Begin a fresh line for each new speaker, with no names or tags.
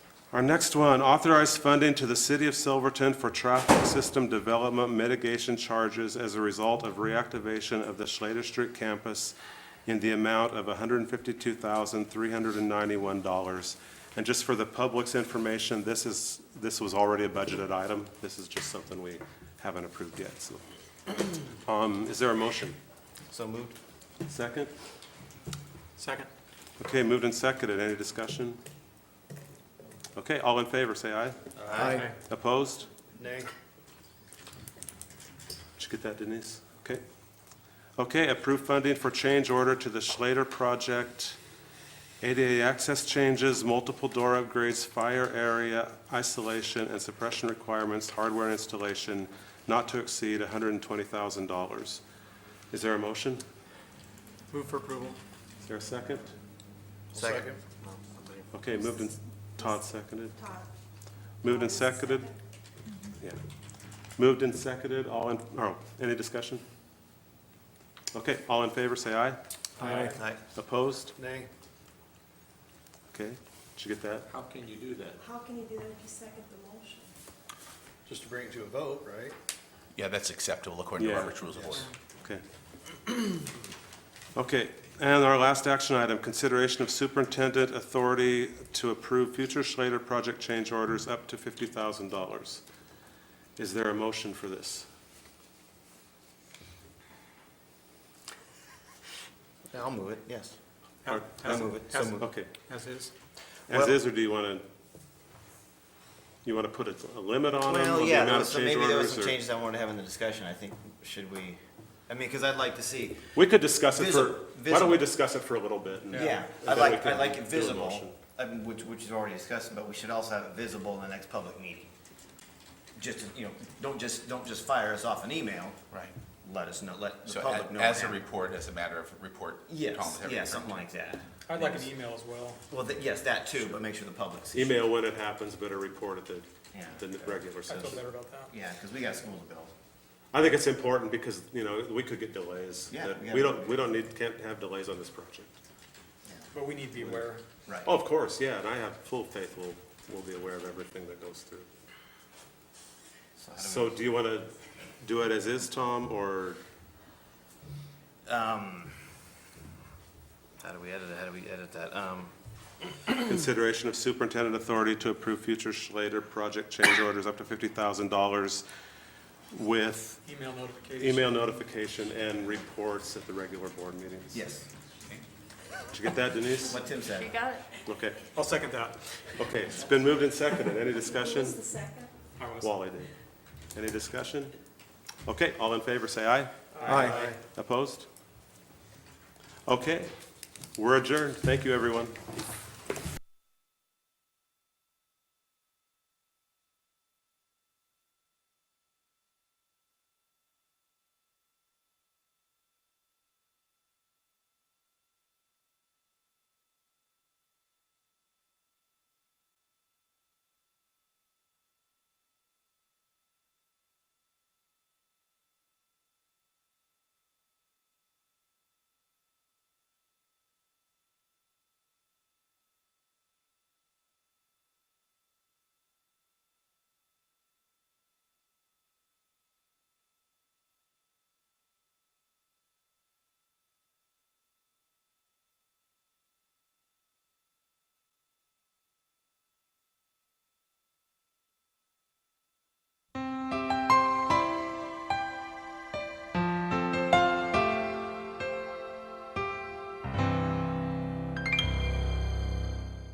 Our next one, authorized funding to the City of Silverton for traffic system development mitigation charges as a result of reactivation of the Schlater Street campus in the amount of $152,391. And just for the public's information, this is, this was already a budgeted item. This is just something we haven't approved yet, so. Um, Is there a motion?
So moved.
Second?
Second.
Okay, moved and seconded. Any discussion? Okay, all in favor, say aye.
Aye.
Opposed?
Nay.
Did you get that, Denise? Okay. Okay, approve funding for change order to the Schlater Project, ADA access changes, multiple door upgrades, fire area isolation and suppression requirements, hardware installation, not to exceed $120,000. Is there a motion?
Move for approval.
Is there a second?
Second.
Okay, moved and, Todd seconded? Todd. Moved and seconded? Yeah. Moved and seconded, all in, oh, any discussion? Okay, all in favor, say aye.
Aye. Aye.
Opposed?
Nay.
Okay, did you get that?
How can you do that?
How can you do that if you second the motion?
Just to bring it to a vote, right?
Yeah, that's acceptable according to
Yeah.
Robert's Rules of Order.
Okay. Okay, and our last action item, consideration of superintendent authority to approve future Schlater project change orders up to $50,000. Is there a motion for this?
Yeah, I'll move it, yes.
Or-
I'll move it, so moved.
Okay.
As is?
As
Well-
is, or do you want to, you want to put a- a limit on them?
Well,
on the
yeah,
amount
there
of
was some-
change
maybe there
orders,
was some
or-
changes I wanted to have in the discussion, I think, should we, I mean, because I'd like to see,
We could discuss it
Visi-
for, why don't we
visible.
discuss it for a little bit? and-
yeah,
and
I'd
then we
like,
can
I'd like
do
it
a
visible,
motion.
I mean, which, which is already discussed, but we should also have it visible in the next public meeting. Just, to, you know, don't just, don't just fire us off an email,
Right.
let us know, let the
So
public
a-
know.
as a
now.
report, as a matter of report.
Yes,
commentary,
yeah,
report.
something like that.
I'd like an email as well.
Well, th- yes, that too, but make sure the public sees. it.
Email when it happens, but a report at the,
Yeah.
the regular
I feel
session.
better about that.
Yeah, because we got school to build.
I think it's important because, you know, we could get delays.
Yeah,
that-
we gotta-
We don't, we don't need, can't have delays on this project.
But we need to be aware.
Right.
Oh, of course, yeah, and I have full faith we'll, we'll be aware of everything that goes through.
So how do we-
So do you want to do it as is, Tom, or?
How do we edit it? How do we edit that? Um,
Consideration of superintendent authority to approve future Schlater project change orders up to fifty thousand dollars with
Email notification.
email notification and reports at the regular board meetings.
yes,
Did you get that, Denise?
what Tim said.
got it.
Okay,
I'll second that.
okay, it's been moved and seconded, any discussion?
Who's the second?
I was-
Wally did. Any discussion? Okay, all in favor, say aye.
Aye.
Opposed? Okay, we're adjourned, thank you, everyone.